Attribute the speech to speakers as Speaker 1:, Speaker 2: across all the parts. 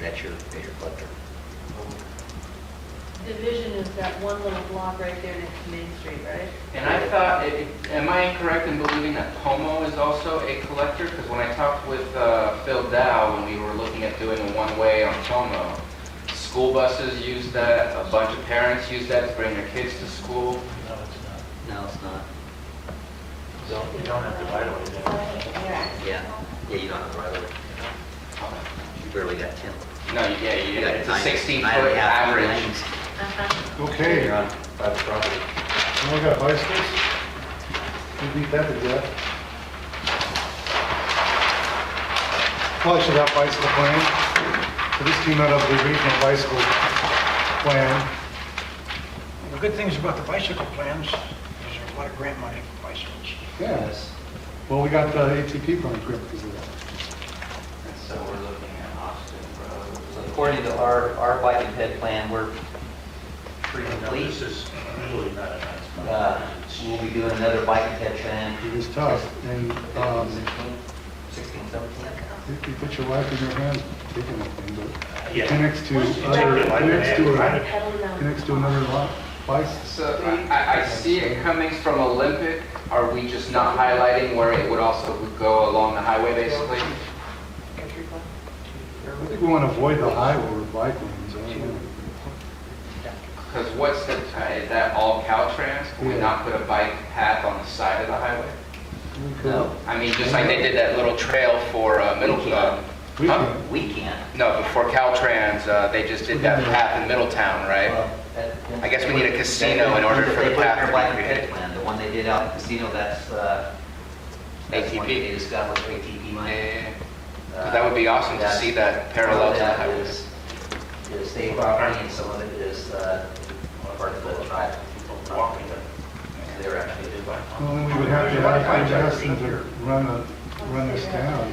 Speaker 1: That's your, that's your cluster.
Speaker 2: Division is that one little block right there next to Main Street, right?
Speaker 3: And I thought, it- it- am I incorrect in believing that Pomo is also a collector? Because when I talked with uh, Phil Dow, when we were looking at doing a one-way on Pomo, school buses use that, a bunch of parents use that to bring their kids to school.
Speaker 4: No, it's
Speaker 1: No, it's not.
Speaker 4: not. You don't have the right of way there.
Speaker 2: Yeah.
Speaker 1: Yeah, yeah, you don't have the right of way. You barely got 10.
Speaker 3: No, you- yeah, you-
Speaker 1: You got
Speaker 3: it's a
Speaker 1: nine-
Speaker 3: 16-foot
Speaker 1: nine and a half
Speaker 3: average.
Speaker 1: lanes.
Speaker 2: Uh-huh.
Speaker 5: Okay,
Speaker 1: You're
Speaker 5: now
Speaker 1: on private property.
Speaker 5: we got bicycles. We beat that to death. Well, I should have bicycle plan. So this came out of the regional bicycle plan.
Speaker 6: The good things about the bicycle plans is there's a lot of grant money for bicycles.
Speaker 5: Yes. Well, we got the ATP plan grant because of that.
Speaker 3: So we're looking at Austin Road.
Speaker 1: So according to our, our bike and ped plan, we're pretty
Speaker 4: No,
Speaker 1: complete.
Speaker 4: This is really not a nice spot.
Speaker 1: Uh, We'll be doing another bike and ped plan.
Speaker 5: It was tough. And um,
Speaker 1: 16, 16, 17.
Speaker 5: if you put your life in your hands, taking that thing, but it
Speaker 4: Yeah.
Speaker 5: connects to
Speaker 2: Once you
Speaker 5: other,
Speaker 2: drive it,
Speaker 5: connects to, a-
Speaker 2: Pedaling down.
Speaker 5: connects to another lot, bicycle.
Speaker 3: So I- I, I see it coming from Olympic. Are we just not highlighting where it would also would go along the highway, basically?
Speaker 5: I think we want to avoid the highway with bike lanes. I don't know.
Speaker 3: Because what's the, is that all Caltrans? Can we not put a bike path on the side of the highway?
Speaker 5: We could-
Speaker 1: No,
Speaker 3: I mean, just like they did that little trail for uh, Middletown.
Speaker 5: We
Speaker 3: Huh?
Speaker 5: can.
Speaker 1: we can't.
Speaker 3: No, before Caltrans, uh, they just did that path in Middletown, right?
Speaker 1: I
Speaker 3: I guess we need a casino in order for the
Speaker 1: They put it in their
Speaker 3: path to be
Speaker 1: bike and
Speaker 3: created.
Speaker 1: ped plan, the one they did out at the casino, that's, uh, that's one
Speaker 3: ATP.
Speaker 1: they just got with ATP money. Uh,
Speaker 3: Eh, That would be awesome to see that parallel to the
Speaker 1: That
Speaker 3: highway.
Speaker 1: is, is state property and some of it is, uh, one part of the tribe.
Speaker 4: Walking it.
Speaker 1: They're actually,
Speaker 4: They did like-
Speaker 5: Well, then we would have to have Justin to run a, run this down.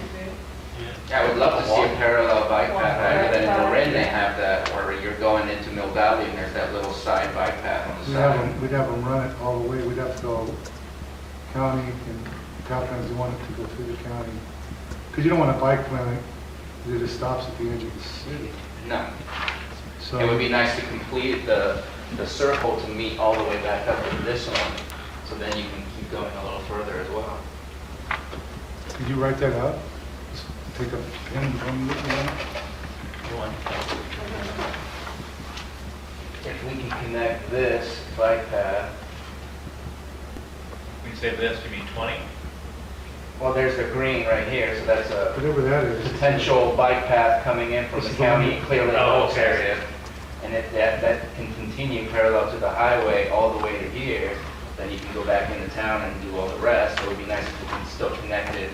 Speaker 3: Yeah, I would love to see a parallel bike path, rather than in Marin, they have that, where you're going into Mill Valley, and there's that little side bike path on
Speaker 5: We'd
Speaker 3: the
Speaker 5: have
Speaker 3: side.
Speaker 5: them, we'd have them run it all the way, we'd have to go county and Caltrans, we want it to go through the county. Because you don't want a bike plan that just stops at the edge of the city.
Speaker 3: No,
Speaker 5: So
Speaker 3: it would be nice to complete the, the circle to meet all the way back up to this one, so then you can keep going a little further as well.
Speaker 5: Could you write that up? Just Take a pen and run with it.
Speaker 4: One.
Speaker 3: If we can connect this bike path,
Speaker 7: When you say this, you mean 20?
Speaker 3: well, there's the green right here, so that's a
Speaker 5: Whatever that is.
Speaker 3: potential bike path coming in from the county, clearly
Speaker 7: Oh,
Speaker 3: Oaks
Speaker 7: okay.
Speaker 3: area. And if that, that can continue parallel to the highway all the way to here, then you can go back into town and do all the rest. It would be nice if we can still connect it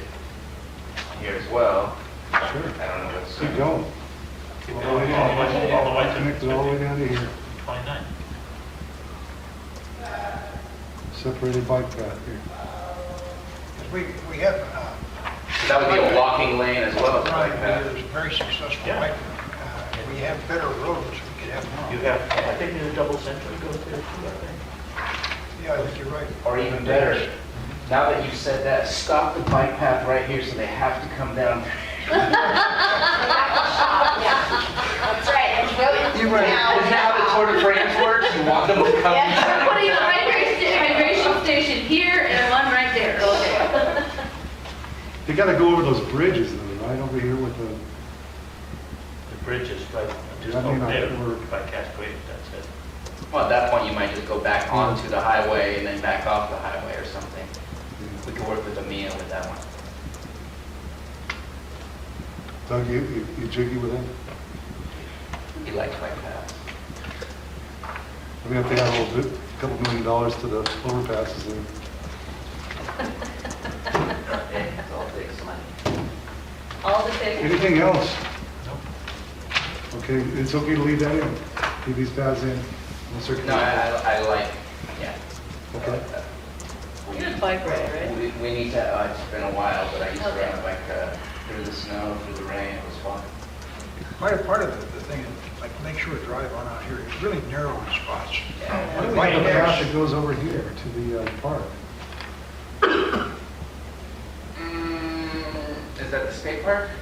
Speaker 3: here as well. I
Speaker 5: Sure.
Speaker 3: don't know what's.
Speaker 5: Keep going.
Speaker 4: Keep going, all the way- all the way to-
Speaker 5: Connect it all the way down to here,
Speaker 4: 29.
Speaker 5: separated bike path here.
Speaker 6: 'Cause We, we have, uh,
Speaker 3: That would be a walking lane as well as a bike
Speaker 6: Rhino
Speaker 3: path.
Speaker 6: is very successful,
Speaker 4: Yeah.
Speaker 6: like, uh, we have better roads, we could have
Speaker 4: You
Speaker 6: more.
Speaker 4: have, I think there's a double century goes there too, I think.
Speaker 6: Yeah, I think you're right.
Speaker 3: Or even better, now that you've said that, stop the bike path right here so they have to come down.
Speaker 8: That's right, and go into
Speaker 3: You were,
Speaker 8: town.
Speaker 3: isn't that how the Tour de France works? You want them to come.
Speaker 2: Yeah, we're putting a migration sta- migration station here and one right there. Okay.
Speaker 5: They gotta go over those bridges though, right over here with the
Speaker 4: The bridge is right, just
Speaker 5: I mean,
Speaker 4: over
Speaker 5: I-
Speaker 4: there
Speaker 5: we're-
Speaker 4: by Cascade, that's it.
Speaker 3: Well, at that point, you might just go back onto the highway and then back off the highway or something. We could work with Amia with that one.
Speaker 5: Doug, you, you- you jiggy with it?
Speaker 3: He likes bike paths.
Speaker 5: I mean, if they have a little bit, a couple million dollars to the overpasses, then
Speaker 1: it's all takes money.
Speaker 2: All the things.
Speaker 5: anything else? Okay, it's okay to leave that in, leave these paths in, no
Speaker 3: No, I,
Speaker 5: circulation.
Speaker 3: I I like, yeah.
Speaker 5: Okay.
Speaker 2: You're a bike rider, right?
Speaker 3: We, we need to, uh, it's been a while, but I used to ride a bike, uh, through the snow, through the rain, it was fun.
Speaker 6: Part of, part of the the thing, is, like, make sure to drive on out here, it's really narrow in spots.
Speaker 3: Yeah.
Speaker 5: Why do we have a path that goes over here to the uh, park?
Speaker 3: Mm, Is that the skate park?